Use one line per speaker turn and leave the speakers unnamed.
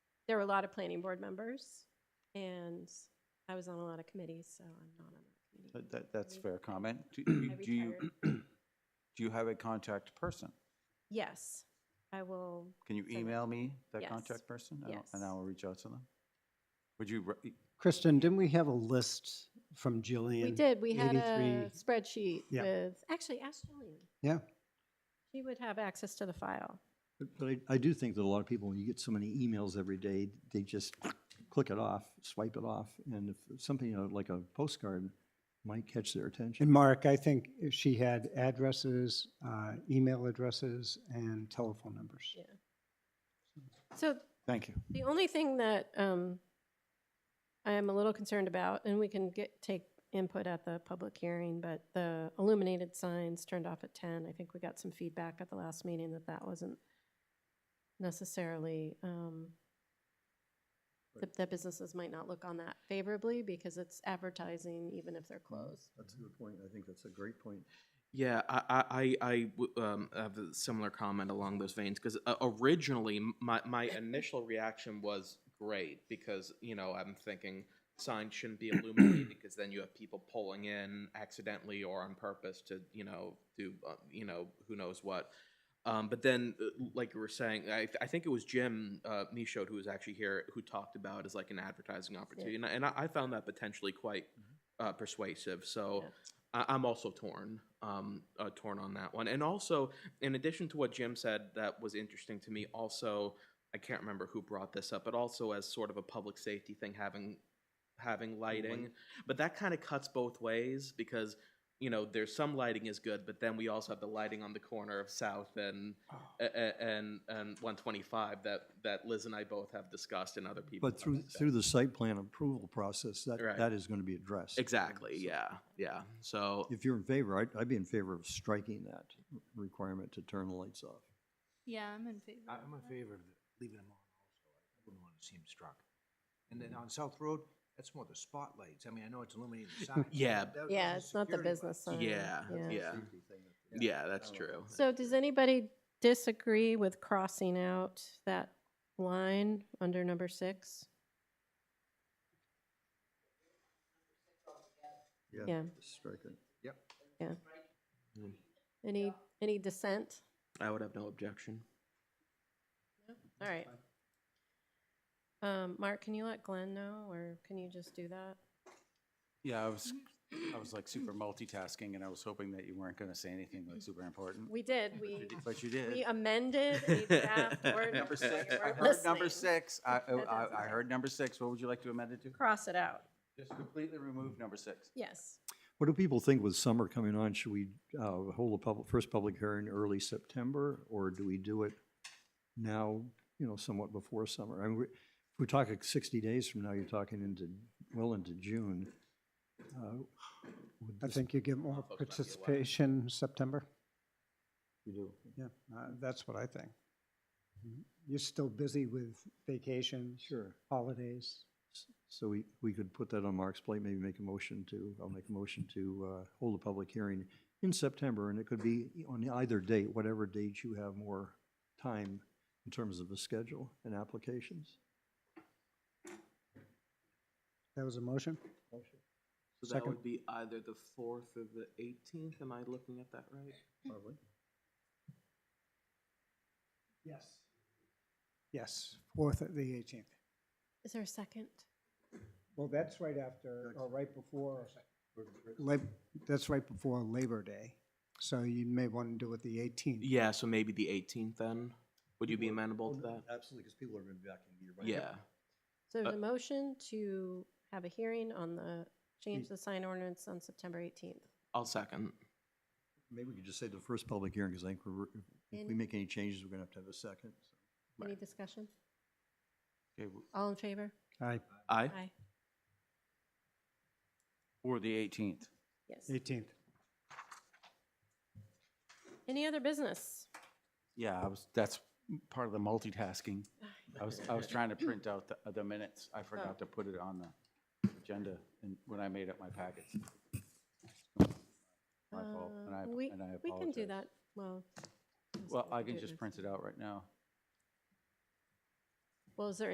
there were a lot of planning board members, and I was on a lot of committees, so I'm not on that committee.
That- That, that's
Sorry.
fair comment. Do you,
I
do you, do you have a contact person?
Yes, I will,
Can you
Send it.
email me that
Yes.
contact person? and I'll- And I
Yes.
will reach out to them? Would you, re-
Kristen, didn't we have a list from Jillian?
we did, we had a
83.
spreadsheet
Yeah.
with, actually, ask Jillian.
Yeah.
She would have access to the file.
But but I, I do think that a lot of people, when you get so many emails every day, they just click it off, swipe it off, and if something you know, like a postcard might catch their attention.
And Mark, I think she had addresses, uh, email addresses, and telephone numbers.
Yeah. So
thank you.
The only thing that um, I am a little concerned about, and we can get, take input at the public hearing, but the illuminated signs turned off at 10, I think we got some feedback at the last meeting that that wasn't necessarily, um, that- that businesses might not look on that favorably because it's advertising even if they're closed.
That's a good point. I think that's a great point.
Yeah, I, I, I I w- um, have a similar comment along those veins because uh, originally m- my, my initial reaction was great because, you know, I'm thinking signs shouldn't be illuminated because then you have people pulling in accidentally or on purpose to, you know, do, uh, you know, who knows what. Um, but then, uh, like you were saying, I, I think it was Jim uh, Michaud who was actually here who talked about it as like an advertising opportunity, and, I, and I, I found that potentially quite uh, persuasive. So
Yeah.
I, I'm also torn, um, uh, torn on that one. And also, in addition to what Jim said, that was interesting to me. Also, I can't remember who brought this up, but also as sort of a public safety thing, having having lighting, but that kind of cuts both ways because. You know, there's some lighting is good, but then we also have the lighting on the corner of South and a- a- and and 125 that that Liz and I both have discussed and other people.
But through, through the site plan approval process, that,
Right.
that is going to be addressed.
exactly,
So
yeah, yeah. So
If you're in favor, I'd, I'd be in favor of striking that requirement to turn the lights off.
Yeah, I'm in favor.
I- I'm in favor of leaving them on also. I wouldn't want to see them struck. And then on South Road, that's more the spotlights. I mean, I know it's illuminated signs. but
Yeah.
that- that's
Yeah,
a
it's not the
security one.
business sign.
yeah, yeah, yeah. That's true.
So does anybody disagree with crossing out that line under number six? Yeah.
Strike it.
Any, any dissent?
I would have no objection.
All right. Um, Mark, can you let Glenn know, or can you just do that?
Yeah, I was, I was like super multitasking and I was hoping that you weren't going to say anything like super important.
We did, we,
But you
we
did.
amended a draft ordinance.
Number six,
You
I
weren't
heard number
listening.
six. I, oh, I-
That doesn't
I, I heard number six. What would you like to amend it to?
Cross it out,
Just completely remove number six.
yes.
What do people think with summer coming on? Should we uh, hold a public, first public hearing early September, or do we do it now, you know, somewhat before summer? I mean, we- if we're talking 60 days from now, you're talking into, well into June. Uh, would
Uh, I
this-
think you get more
uh,
folks might be aware.
participation September.
You do.
Yeah, uh, that's what I think. Mm-hmm. You're still busy with vacations,
Sure.
holidays.
S- So we, we could put that on Mark's plate, maybe make a motion to, I'll make a motion to uh, hold a public hearing in September, and it could be on either date, whatever date you have more time in terms of a schedule and applications.
That was a motion?
So
Second.
would be either the fourth or the eighteenth. Am I looking at that right?
Yes. Yes, fourth at the eighteenth.
Is there a second?
Well, that's right after, or right before, Lab- that's right before Labor Day. So you may want to do it the eighteenth.
Yeah. So maybe the eighteenth then. Would you be amenable to that?
Absolutely, because people are going to be back in year
Yeah.
So there's
Uh,
a motion to have a hearing on the, change
Hmm.
the sign ordinance on September 18th.
I'll second.
Maybe we could just say the first public hearing, because I think we're, if we
Any-
make any changes, we're going to have to have a second.
Any discussion?
Okay, w-
All in favor?
Aye,
Aye.
or the eighteenth.
Yes.
eighteenth.
Any other business?
Yeah, I was, that's part of the multitasking. I was, I was trying to print out the, the minutes. I forgot to put it on the agenda and when I made up my packets. My fault, and I,
Uh, we-
and I apologize.
We can do that, well. I guess
Well,
we
I
do
can
it
just
next-
print it out right now.
Well, is there